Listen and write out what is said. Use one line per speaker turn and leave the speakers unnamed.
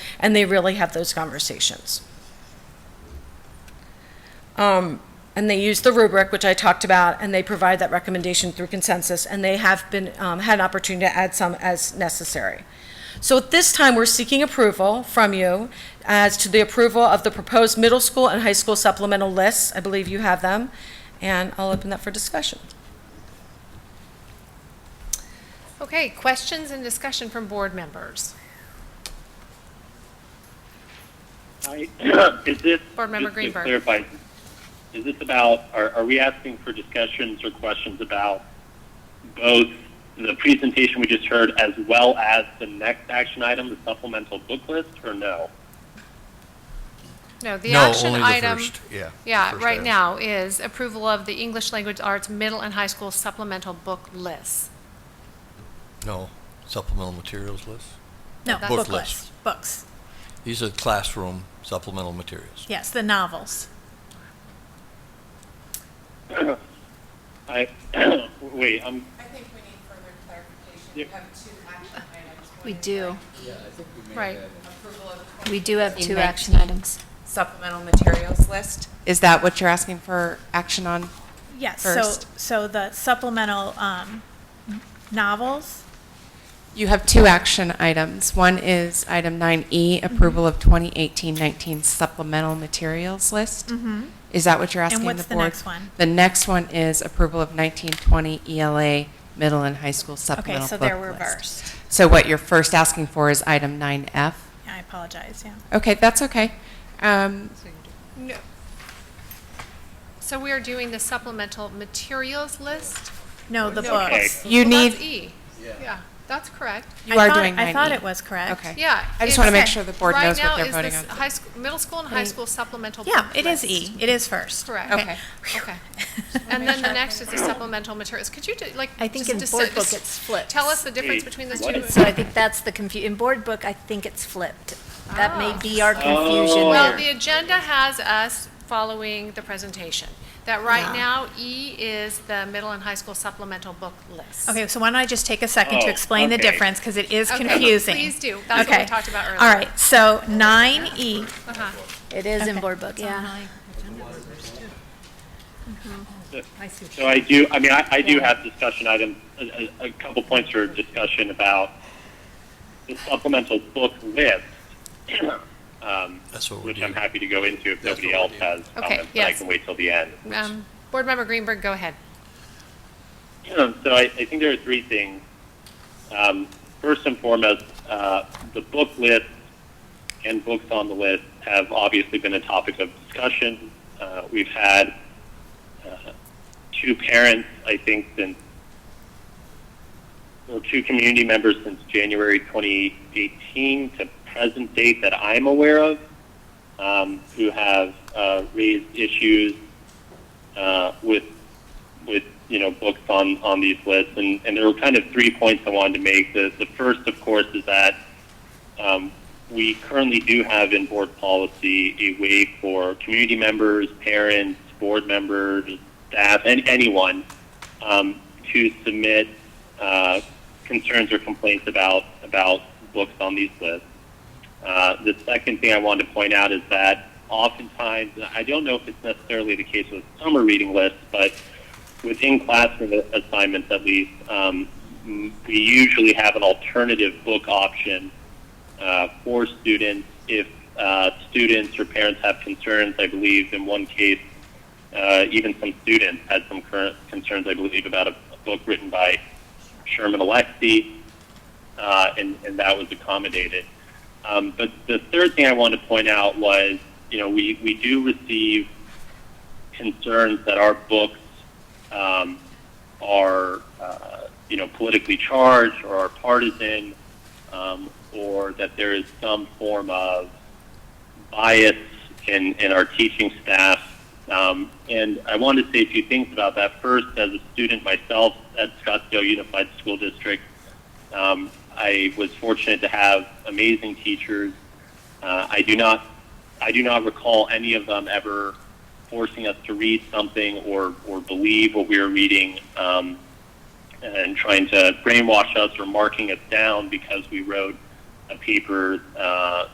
and they really have those conversations. Um, And they use the rubric, which I talked about, and they provide that recommendation through consensus, and they have been, um, had an opportunity to add some as necessary. So at this time, we're seeking approval from you as to the approval of the proposed middle school and high school supplemental lists. I believe you have them, and I'll open that for discussion.
Okay, questions and discussion from board members.
I- Is this?
Board Member
just to
Greenberg.
Clarify, is this about, are, are we asking for discussions or questions about both the presentation we just heard as well as the next action item, the supplemental book list, or no?
No, the
No,
action
only the
item.
first, yeah, the
Yeah,
first
right
item.
now is approval of the English Language Arts Middle and High School Supplemental Book List.
No, supplemental materials list.
No,
Book
book
list.
list, books.
These are classroom supplemental materials.
Yes, the novels.
I, wait, I'm,
I think we need further clarification.
Yeah.
We have two action items. One
We
is
do.
Right.
Approval of
We do have two
Index.
action items.
supplemental materials list. Is that what you're asking for action on?
Yes, so,
First.
so the supplemental um, novels,
You have two action items. One is item 9E, approval of 2018-19 supplemental materials list. Is that what you're asking Mm-hmm. the board?
what's the next one?
The next one is approval of 1920 ELA middle and high school
okay,
supplemental
so
book
they're
list.
reversed.
So what you're first asking for is item 9F?
I apologize, yeah.
Okay, that's okay. Um,
So we are doing the supplemental materials list?
No, the
No,
books.
You
Well,
need,
That's E. Yeah, that's correct.
you
I
are
thought-
doing E. 9E.
I thought it was correct.
Okay.
Yeah.
I just want to make
Okay.
sure the board knows what they're voting
Right now is
on.
this high, sch- middle school and high school supplemental book
Yeah,
list.
it is E, it is first.
Correct.
Okay.
Okay. And then the next is the supplemental materials. Could you, do like,
I think
just
in
dis-
board book
dis-
it's flipped.
Tell us the difference
Wait,
between those
what?
two.
So I think that's the confu, in board book, I think it's flipped. That may be our confusion
Well,
there.
the agenda has us following the presentation. That right now, E is the middle and high school supplemental book list.
Okay, so why don't I just take a second to
Oh,
explain the
okay.
difference, because it is
Okay,
confusing.
please do. That's what we
Okay.
talked about earlier.
All right, so nine E,
Uh-huh.
It is in
okay.
board book, yeah.
so I do, I mean, I, I do have discussion items, a, a, a couple points for discussion about the supplemental book list. um,
That's what we're
Which
doing.
I'm happy to go into if
That's
nobody
what
else
we're
has
Okay,
comments, but I
yes.
can wait till the end.
Um, Board Member Greenberg, go ahead.
Um, so I, I think there are three things. Um, first and foremost, uh, the book list and books on the list have obviously been a topic of discussion. Uh, we've had uh, two parents, I think, since well, two community members since January 2018 to present date that I'm aware of, um, who have uh, raised issues uh, with with you know books on on these lists, and, and there were kind of three points I wanted to make. The the first, of course, is that um, we currently do have in board policy a way for community members, parents, board members, staff, and anyone um, to submit uh, concerns or complaints about about books on these lists. Uh, the second thing I wanted to point out is that oftentimes, I don't know if it's necessarily the case with summer reading lists, but within classroom a- assignments at least, um, m- we usually have an alternative book option uh, for students if uh, students or parents have concerns. I believe in one case, uh, even some students had some current concerns, I believe, about a, a book written by Sherman Alexie, uh, and, and that was accommodated. Um, but the third thing I wanted to point out was, you know, we, we do receive concerns that our books um, are, uh, you know, politically charged or are partisan, um, or that there is some form of bias in, in our teaching staff. Um, and I wanted to say a few things about that. First, as a student myself at Scottsdale Unified School District, um, I was fortunate to have amazing teachers. Uh, I do not, I do not recall any of them ever forcing us to read something or, or believe what we were reading um, and trying to brainwash us or marking us down because we wrote a paper uh,